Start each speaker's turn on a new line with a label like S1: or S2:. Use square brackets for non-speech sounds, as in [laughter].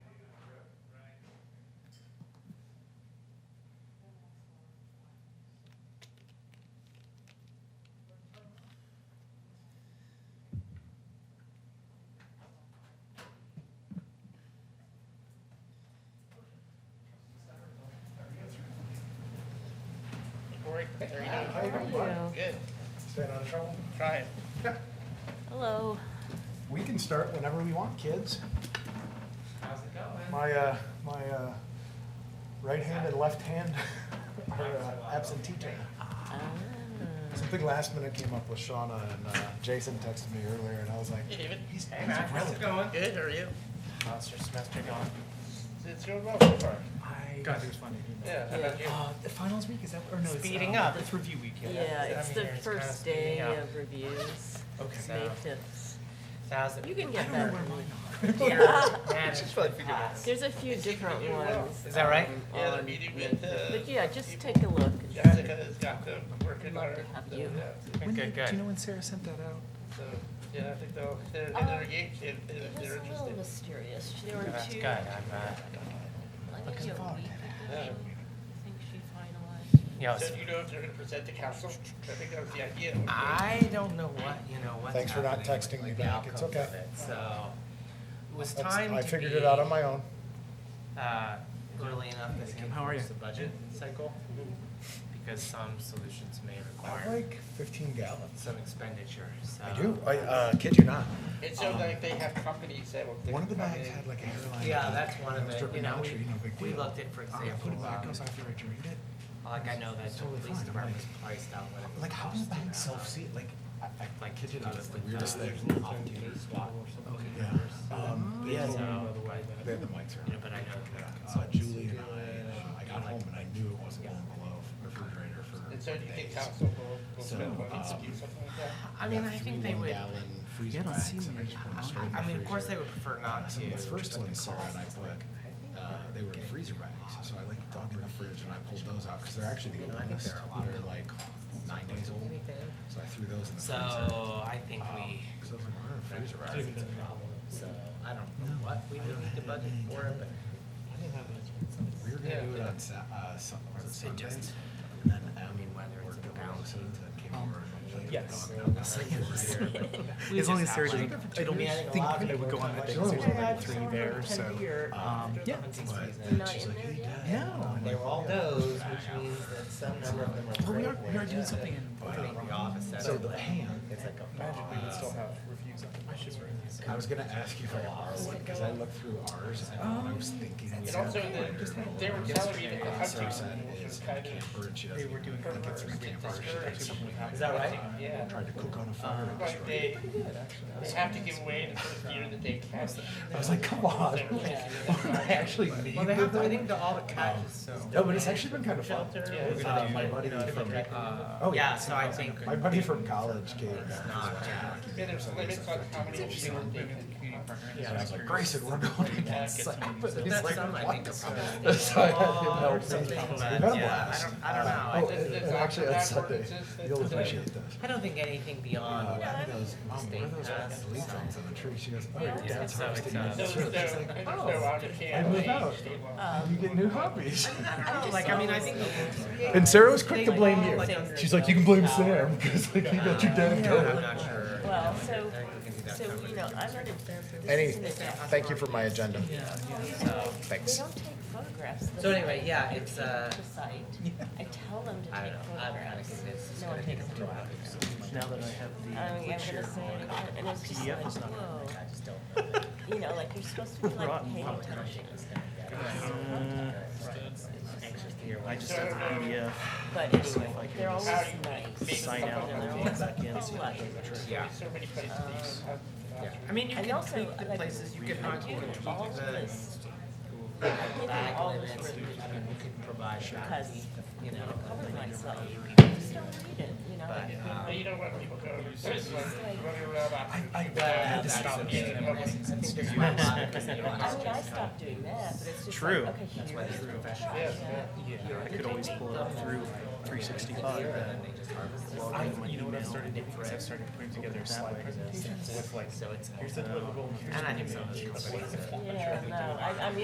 S1: break for three days.
S2: How you doing, bud?
S1: Good,
S2: Staying out of trouble?
S1: trying.
S3: Hello.
S2: We can start whenever we want, kids.
S1: How's it going?
S2: My, uh, my, uh, right hand and left hand [laughs] are uh, absentee taking.
S3: Ah.
S2: Something last minute came up with Shauna and, uh, Jason texted me earlier and I was like,
S1: Hey, David.
S2: he's, he's
S4: Hey, Matt, how's it
S2: relevant.
S4: going?
S1: Good, how are you?
S4: How's your semester going?
S1: It's going well so far.
S2: I,
S4: God, it was funny.
S1: Yeah, how about you?
S2: uh, the finals week, is that, or no, it's,
S4: Speeding
S2: uh,
S4: up.
S2: It's review week, yeah.
S3: Yeah, it's
S4: that's- I
S3: the
S4: mean, it's kinda
S3: first
S4: speeding
S3: day
S4: up.
S3: of reviews.
S4: Okay.
S3: It's May
S4: So-
S3: 5th.
S4: Thousand.
S3: You can
S2: I don't
S3: get
S2: know
S3: that.
S2: where mine [laughs]
S3: Yeah.
S4: Man,
S1: She's probably figured out.
S4: class.
S3: There's a few different
S1: do well.
S3: ones.
S4: Is that right?
S3: um,
S1: Yeah, the
S3: on
S1: meeting with,
S3: May 5th.
S1: uh,
S3: But yeah, just take a look. and see.
S1: Jessica has got them working
S3: Good luck
S1: hard.
S3: to have
S1: so,
S3: you.
S1: yeah,
S2: are. When
S4: Okay,
S2: did- Do
S4: good.
S2: you know when Sarah sent that out?
S1: So, yeah, I think they'll, they're,
S3: Uh,
S1: they're engaged if, if
S3: It was
S1: they're
S3: a little
S1: interested.
S3: mysterious. There were
S4: That's
S3: two.
S4: good. I'm, uh,
S3: I think
S2: Looking
S3: it was a
S2: forward
S3: week
S2: to
S3: ago.
S1: Yeah.
S3: I think she finalized.
S4: you know,
S1: So
S4: it's-
S1: do you know if they're gonna present to council? I think that was the idea. wasn't it?
S4: I don't know what, you know, what's
S2: Thanks for not
S4: happening with,
S2: texting me
S4: like, the
S2: back. It's
S4: outcomes of
S2: okay.
S4: it, So, it was
S2: That's-
S4: time to
S2: I figured it out on my own.
S4: uh, early enough this year.
S5: How are you?
S4: The budget cycle, because some solutions may
S2: I
S4: require
S2: like fifteen gallons.
S4: some expenditure, so.
S2: I do, I, uh, kid you not. Um,
S1: And so like they have companies that will.
S2: One of the
S1: come
S2: bags
S1: in.
S2: had like a hairline.
S4: Yeah,
S2: attack,
S4: that's one
S2: and
S4: of
S2: it was
S4: it.
S2: dripping
S4: You know,
S2: out,
S4: we-
S2: so, you know, big
S4: we
S2: deal.
S4: looked at, for
S2: Uh, I put it
S4: example,
S2: back,
S4: um,
S2: I was after I drained it.
S4: Like I know that
S2: It's
S4: the
S2: totally
S4: police
S2: fine,
S4: department was
S2: like-
S4: priced out when it was.
S2: Like, how does
S4: first, uh,
S2: that self-seat, like, I, I,
S4: Like kid you not, it's
S2: the
S4: like, uh,
S2: weirdest thing.
S4: there's an off-duty spot.
S2: yeah. Um,
S4: Yeah, so,
S2: They had the mics
S4: you know,
S2: around.
S4: but I know that.
S2: Uh,
S4: consultants
S2: Julie and
S4: do it,
S2: I, I got
S4: like,
S2: home and I knew it wasn't going below refrigerator for
S1: And so do you think
S2: days.
S1: council will, will
S2: So,
S1: spend money to
S2: um,
S1: do something like that?
S4: I mean, I think they would,
S2: Gallon freezer
S5: Yeah, I don't
S2: packs,
S5: see
S2: and I
S5: me.
S2: just put them
S5: I-
S2: straight in
S4: I
S2: the
S4: mean, of course they
S2: freezer.
S4: would prefer not to.
S2: Some of the first
S4: just at the
S2: ones, Sarah and I
S4: cost.
S2: put, uh, they were in freezer bags, so I like dug in the fridge and I pulled those out, cause they're actually the
S4: You know, I think
S2: oldest,
S4: there are a lot of
S2: they're like nine days old, so I threw those in the
S4: So
S2: freezer.
S4: I think
S5: Um,
S4: we,
S2: Cause those were in the freezer
S4: I
S2: rack.
S4: think it's a problem, so I don't know what we would need to budget for it, but.
S2: We were
S1: Yeah.
S2: gonna do it on Sa- uh, Sun- was it
S4: It
S2: Sunday?
S4: just-
S2: And then, um,
S4: mean, whether it's
S2: worked
S4: a
S2: over
S4: balance
S2: Lisa
S4: sheet.
S2: and came over and played with
S5: Yes.
S2: the dog.
S5: [laughs]
S4: [laughs]
S5: As long as Sarah
S4: Like,
S5: didn't,
S4: I
S5: I
S4: mean, I
S5: don't
S4: think a
S5: think
S4: lot of
S5: I
S4: people
S5: would go on
S4: would
S5: that day
S4: like-
S5: because
S2: Sure.
S5: there's
S2: Yeah,
S5: already three there, so. Um, yeah.
S3: We're not
S2: She's
S3: in
S2: like,
S3: there
S2: "Hey,
S3: yet?
S2: Dad."
S5: No.
S2: And I'm
S4: They were
S2: like,
S4: all
S2: "Oh, yeah."
S4: those, which means that some number of them are.
S5: Well, we are,
S4: throwable.
S5: we are doing
S4: Yeah.
S5: something in.
S4: I think the office set
S2: So
S4: up
S2: the
S4: like-
S2: hand-
S4: It's like a.
S5: Magically,
S4: box.
S5: we still have reviews on the budget.
S2: I was gonna ask you if I could borrow one, cause I looked through ours and I was thinking. we
S1: And
S2: had
S1: also,
S2: one
S1: the-
S2: just had
S1: they were
S2: one.
S1: telling me that the
S2: And
S1: hunting
S2: Sarah said
S1: was
S2: is a
S1: kind of-
S2: camper and she
S5: They
S2: doesn't
S5: were doing
S2: think it's a
S5: reversed.
S2: camper, she thinks it's something like
S4: Is that right?
S1: Yeah.
S2: Tried to cook on a fire. and
S1: Like
S2: destroyed
S1: they,
S2: it.
S1: they have to give away the first year that they can.
S2: I was like, come on,
S1: Yeah.
S2: like, [laughs] I actually need.
S4: Well, they have, I
S2: this.
S4: think the all the catches, so.
S2: No, but it's actually been kind of fun.
S1: Shelter.
S4: Yeah,
S1: We're
S2: Uh,
S1: gonna do
S2: my
S1: like-
S2: buddy from,
S4: Uh,
S2: oh
S4: yeah,
S2: yeah,
S4: so I think.
S2: my buddy from college came.
S4: Not, yeah.
S1: Yeah, there's limits on how many years
S5: They were
S1: they
S5: moving the
S1: can.
S5: community partner.
S2: And I was like, Grayson, we're going against
S5: Yeah, get some-
S2: Cyprus. He's
S4: That's
S2: like, uh,
S4: some, I
S2: what?
S4: think, are
S2: So [laughs] I
S4: probably-
S2: had him
S4: Oh,
S2: help me.
S4: something,
S2: We've
S4: but
S2: had a
S4: yeah, I
S2: blast.
S4: don't- I don't know. I
S2: Oh,
S4: think
S2: and-
S1: it's
S2: and actually, on
S1: not
S2: Sunday,
S1: ordinances that-
S2: you'll appreciate this.
S4: I don't think anything beyond.
S2: Uh, one of those, mom, what are those
S4: State
S2: fucking leaf things on the tree? She goes, oh, your
S3: Yeah,
S2: dad's
S4: so
S2: harvesting
S4: it's,
S2: them.
S4: uh,
S1: So,
S2: It's
S1: so,
S2: really
S1: there's
S2: just
S1: no
S2: like,
S1: out of
S2: I
S1: camp,
S2: moved
S1: they
S2: out.
S1: stay long.
S2: You
S3: Um,
S2: get new hobbies. [laughs]
S4: I don't know, like, I mean, I think.
S2: And Sarah was quick to
S4: They
S2: blame
S4: all
S2: you.
S4: think
S2: She's like, you can blame
S4: they're
S2: Sam because like you got your dad
S4: power.
S2: going.
S4: I'm not sure.
S3: Well,
S4: I
S3: so,
S4: think we can do that
S3: so,
S4: cover.
S3: you know, I'm not in favor.
S2: Any,
S3: This isn't a-
S2: thank you for my agenda.
S4: So-
S3: They
S2: Thanks.
S3: don't take photographs.
S4: So anyway, yeah, it's, uh,
S3: The site.
S4: [laughs]
S3: I tell them to
S4: I
S3: take
S4: don't know, I'm kind of
S3: photographs.
S4: convinced it's
S3: No one
S4: gonna be
S3: takes
S4: two
S3: them.
S4: hours.
S5: Now that I have
S3: Um, I'm
S5: the
S3: gonna
S5: click share
S3: say
S5: on
S3: it again, and it's just
S5: PDF is
S3: like,
S5: not
S3: whoa.
S4: I just don't know.
S3: You know, like you're supposed to be like
S5: Rotten
S3: paying
S5: public
S3: attention,
S4: Anxious to hear what.
S5: I just have the PDF,
S3: but
S5: so
S3: anyway,
S5: if I can
S3: they're always
S5: just
S3: nice.
S5: sign out and then log back in.
S3: "Oh,
S5: so I can try.
S4: Yeah.
S1: So many places to use.
S4: Yeah. I mean, you
S3: And
S4: can
S3: also,
S4: tweak the
S3: like,
S4: places, you can
S3: I
S4: not
S3: do
S4: tweak the
S3: all of this.
S4: bag
S3: all
S4: limits,
S3: this
S4: you I mean, you could provide that,
S3: because
S4: you know.
S3: cover myself. I just don't read it, you know, like,
S5: uh,
S1: But you don't want people going, there's like running around
S2: I,
S1: after.
S2: I
S4: But
S2: had to
S4: that's
S2: stop.
S4: something
S2: eating.
S4: that I think there's
S2: Yeah.
S4: quite a lot of people that
S3: "Oh, I mean, I
S4: don't
S3: stopped doing that, but it's just like,
S5: True.
S3: okay,
S4: That's why
S3: here's
S4: there's
S3: the
S4: professional.
S3: trash.
S1: Yeah.
S5: I could always pull it up through three sixty-five. You know what I've started doing is I've started putting together slide presentations with like,
S4: So it's.
S5: here's the deliverable, and here's
S4: And
S5: the.
S4: I think some of
S5: email.
S4: those companies. uh,
S3: Yeah, no, I, I mean,